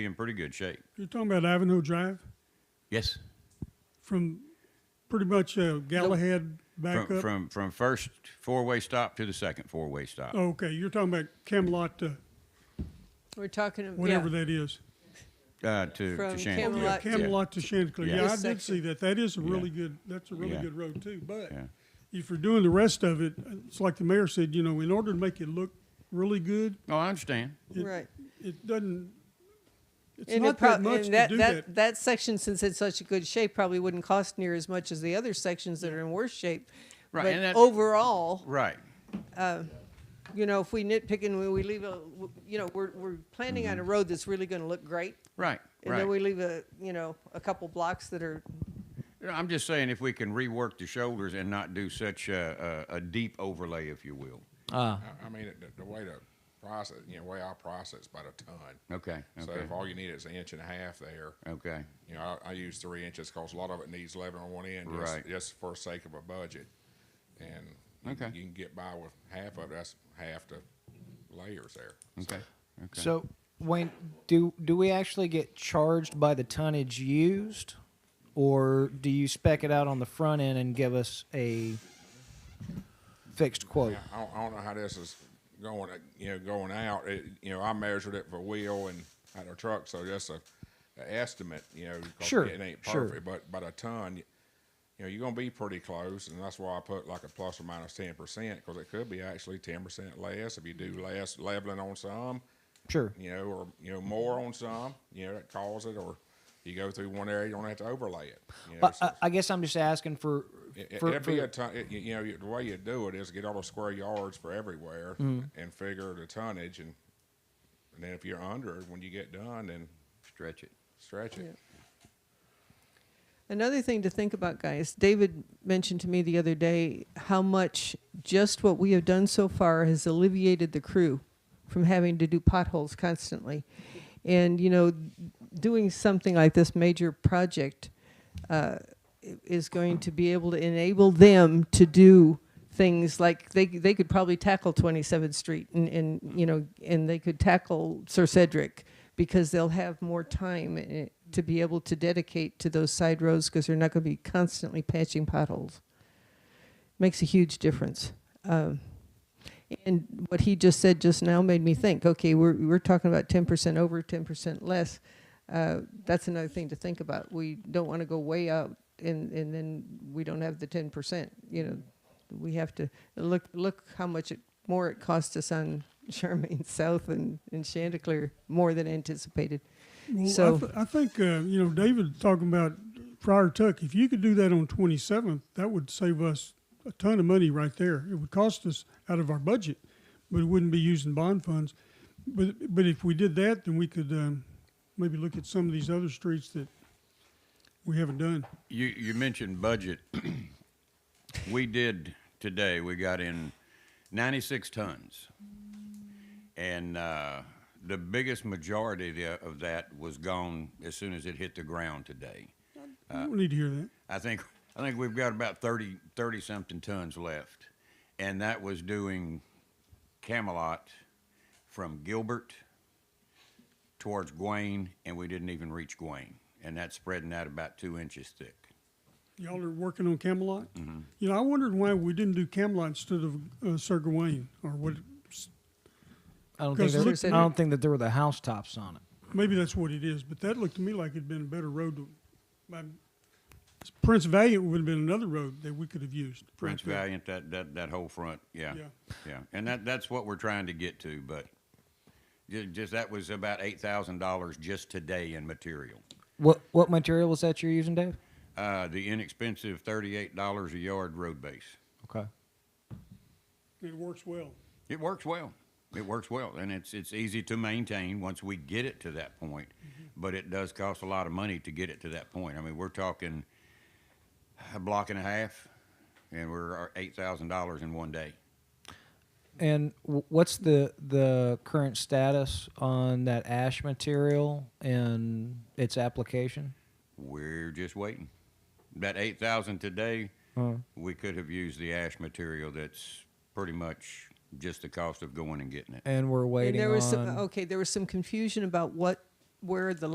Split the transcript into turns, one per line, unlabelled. in pretty good shape.
You're talking about Ivanhoe Drive
Yes.
from pretty much uh, Galahad back
From,
up?
from, from first four-way stop to the second four-way stop.
Oh, okay, you're talking about Camelot to
We're talking about
whatever that is.
Uh, to, to
From
Chantilly.
Camelot to-
Oh. Camelot to Chanticleer.
Yeah.
Yeah, I did
This section.
see that. That is a really
Yeah.
good, that's a really
Yeah.
good road too. But
Yeah.
if you're doing the rest of it, it's like the mayor said, you know, in order to make it look really good,
Oh, I understand.
it-
Right.
it doesn't, it's
And, it
not that
prob-
much
and
to
that,
do
that,
that.
that section, since it's such a good shape, probably wouldn't cost near as much as the other sections that are in worse shape.
Right,
But
and that-
overall,
Right.
you know, if we nitpick and we, we leave a, you know, we're, we're planning on a road that's really going to look great.
Right.
And
Mm-hmm. right.
then we leave a, you know, a couple blocks that are
You know, I'm just saying if we can rework the shoulders and not do such a, a, a deep overlay, if you will.
I, I mean, the, the way to process, you know, way I process by the ton.
Okay.
So
Okay. Oh.
if all you need is an inch and a half there,
Okay.
you know, I, I use three inches because a lot of it needs eleven on one end, just,
Right.
just for sake of a budget. And you can-
Okay.
you can get by with half of it. That's half the layers there.
Okay. Okay.
So Wayne, do do we actually get charged by the tonnage used, or do you spec it out on the front end and give us a fixed quote?
I don't, I don't know how this is going, uh, you know, going out. It, you know, I measured it for wheel and at a truck, so just a, a estimate, you know, 'cause
Sure,
it ain't
sure.
perfect, but but a ton, you know, you're gonna be pretty close, and that's why I put like a plus or minus ten percent because it could be actually ten percent less if you
Mm-hmm.
do less leveling on some,
Sure.
you know, or you know more
Mm-hmm.
on some, you know, that calls it, or you go through one area, you don't have to overlay it. You know,
But uh,
so-
I, I guess I'm just asking for.
it,
for-
it'd be
for-
a ton. It, you- you know, you- the way you do it is get all the square yards for everywhere
Mm-hmm.
and figure the tonnage, and and then if you're under it when you get done, then
stretch it.
stretch it.
Another thing to think about, guys, David mentioned to me the other day how much just what we have done so far has alleviated the crew from having to do potholes constantly. And, you know, doing something like this major project uh, i- is going to be able to enable them to do things like they, they could probably tackle 27th Street and, and, you know, and they could tackle Sir Cedric because they'll have more time eh, to be able to dedicate to those side roads because they're not going to be constantly patching potholes. Makes a huge difference. Um, and what he just said just now made me think. Okay, we're we're talking about ten percent over, ten percent less. Uh, that's another thing to think about. We don't want to go way out, and and then we don't have the ten percent. You know, we have to look look how much it, more it cost us on Charmaine South and, and Chanticleer more than anticipated.
Well, I,
So-
th- I think uh, you know David talking about Friar Tuck. If you could do that on 27th, that would save us a ton of money right there. It would cost us out of our budget, but it wouldn't be using bond funds. But but if we did that, then we could um, maybe look at some of these other streets that we haven't done.
You, you mentioned budget. we did today, we got in 96 tons. And uh, the biggest majority tha- of that was gone as soon as it hit the ground today.
We don't need to hear that.
I think, I think we've got about 30, 30 something tons left. And that was doing Camelot from Gilbert towards Gain, and we didn't even reach Gain. And that's spreading out about two inches thick.
Y'all are working on Camelot. You know, I wondered why we didn't do Camelot instead of uh, Sir Gawain or what.
I don't think
Because
there,
look-
I don't think that there were the housetops on it.
Maybe that's what it is, but that looked to me like it'd been a better road. To, by, Prince Valiant would have been another road that we could have used.
Prince Valiant, that, that, that whole front, yeah,
Yeah.
yeah, and that, that's what we're trying to get to, but ju- just, that was about eight thousand dollars just today in material.
What what material was that you're using, Dave?
Uh, the inexpensive thirty-eight dollars a yard road base.
Okay.
It works well.
It works well. It works well, and it's, it's easy to maintain once we get it to that point, but it does cost a lot of money to get it to that point. I mean, we're talking a block and a half, and we're uh, eight thousand dollars in one day.
And w- what's the the current status on that ash material and its application?
We're just waiting. That eight thousand today, we could have used the ash material. That's pretty much just the cost of going and getting it.
And we're waiting
and there was oh,
on.
some okay there was some confusion about what where the